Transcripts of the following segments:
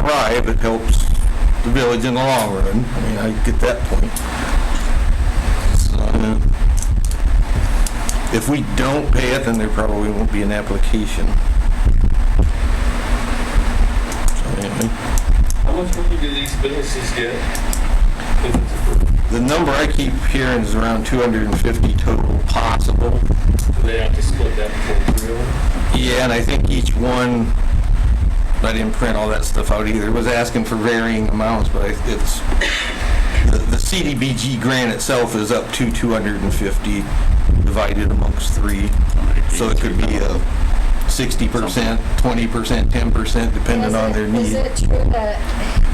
thrive, it helps the village in the long run. I mean, I get that point. So, uh, If we don't pay it, then there probably won't be an application. So, anyway. How much money do these businesses get? if it's approved? The number I keep hearing is around 250 total possible. Do they have to split that between three of them? Yeah, and I think each one, I didn't print all that stuff out either, was asking for varying amounts, but I- it's, the the CDBG grant itself is up to 250 divided amongst three. So it could be uh, a 60%, 20%, 10%, depending Is on it- their Is need. it true that,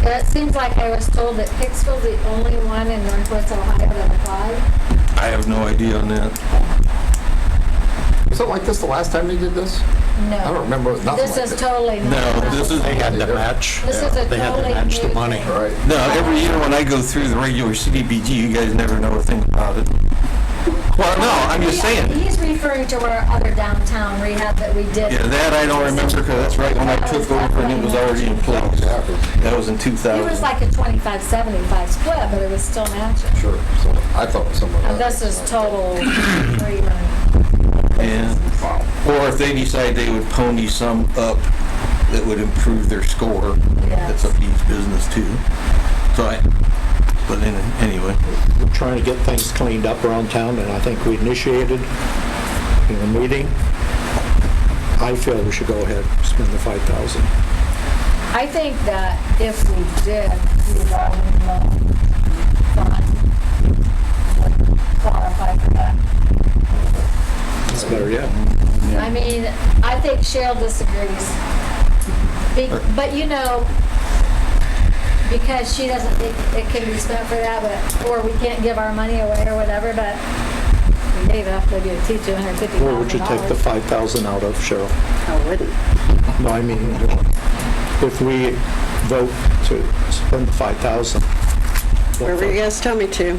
it seems like I was told that Hicksville's the only one in Northwest Ohio that applied? I have no idea on that. Was it like this the last time they did this? No. I don't remember, it was nothing This like is this. totally not. No, this is- They had to match. This is a They had to totally match the new money. thing. All right. No, every year when I go through the regular CDBG, you guys never know a thing about it. Well, no, I'm just He- saying. He's referring to our other downtown rehab that we did. Yeah, that I don't remember, because that's right when I took over and it was already in place. That was in It was 2000. like a 25, 75 split, but it was still matching. Sure, so I thought someone. And this is total free money. Yeah. Or if they decide they would pony some up that would improve their score, that's up to each business too. So I, but in- anyway, We're trying to get things cleaned up around town, and I think we initiated in the meeting. I feel we should go ahead, and spend the 5,000. I think that if we did revolving loan fund, would qualify for that. It's better, yeah. I mean, I think Cheryl disagrees. Be- But you know, because she doesn't think it can be spent for that, but, or we can't give our money away or whatever, but we gave up, we gave two hundred fifty thousand dollars. Where would you take the 5,000 out of, Cheryl? I wouldn't. No, I mean, if we vote to spend the 5,000. what Wherever you guys tell me to.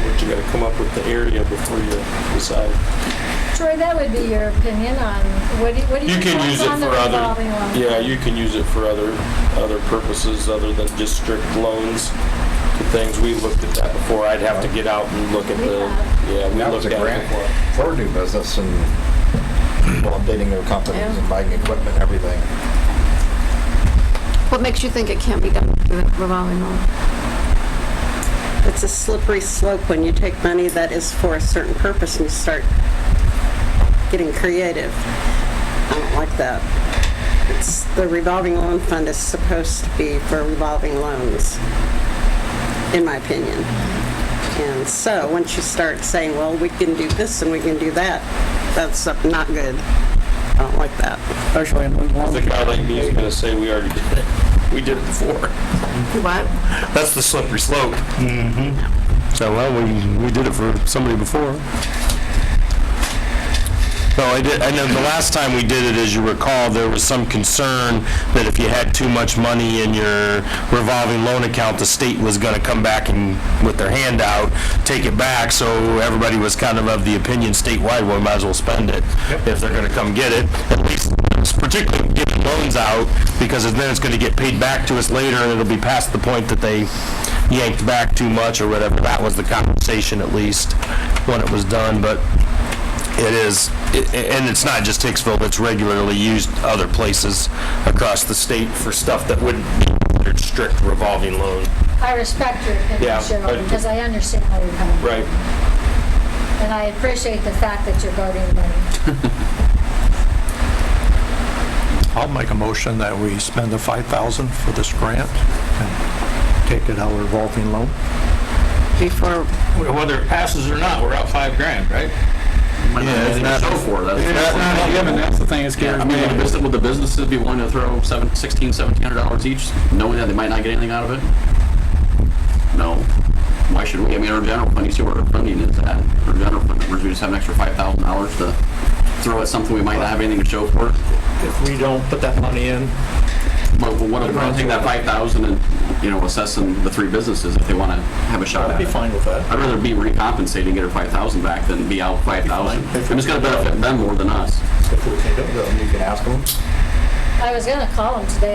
But you gotta come up with the area before you decide. Troy, that would be your opinion on, what do, what do you? You can what's use it on the for other, revolving loan? yeah, you can use it for other, other purposes other than just strict loans to things. We looked at that before. I'd have to get out and look at the, yeah, we That was looked a at it grant before. for new business and people updating their companies and buying equipment and everything. What makes you think it can't be done through the revolving loan? It's a slippery slope when you take money that is for a certain purpose and you start getting creative. I don't like that. It's, the revolving loan fund is supposed to be for revolving loans, in my opinion. And so, once you start saying, well, we can do this and we can do that, that's not good. I don't like that. especially in New The Orleans. guy like me is gonna say we already did it. We did it before. What? That's the slippery slope. Mm-hmm. So, well, we, we did it for somebody before. No, I did, I know the last time we did it, as you recall, there was some concern that if you had too much money in your revolving loan account, the state was gonna come back and, with their hand out, take it back, so everybody was kind of of the opinion statewide, well, we might as well spend it. If they're gonna come get it, at least, particularly giving loans out, because then it's gonna get paid back to us later, and it'll be past the point that they yanked back too much or whatever. That was the conversation at least, when it was done, but it is, i- and it's not just Hicksville, it's regularly used other places across the state for stuff that wouldn't be considered strict revolving loan. I respect your opinion, Yeah, Cheryl, but- because I understand where you're coming from. Right. And I appreciate the fact that you're guarding money. I'll make a motion that we spend the 5,000 for this grant and take it out of revolving loan. Before Whether it passes or not, we're out five grand, right? yeah, it's not, So for that. not given, that's the thing, it's scary. I mean, would the business- would the businesses be willing to throw seven, sixteen, seventeen hundred dollars each, knowing that they might not get anything out of it? No. Why should we? I mean, our general fund, you see where our funding is at. Our general fund, numbers, we just have an extra five thousand dollars to throw at something we might not have anything to show for. it. If we don't put that money in, But what if we take that five thousand and, you know, assessing the three businesses if they want to have a shot I'd at be it? fine with that. I'd rather be recompensated and get her five thousand back than be out five thousand. And it's gonna benefit them more than us. If we can do it, then you can ask them. I was gonna call him today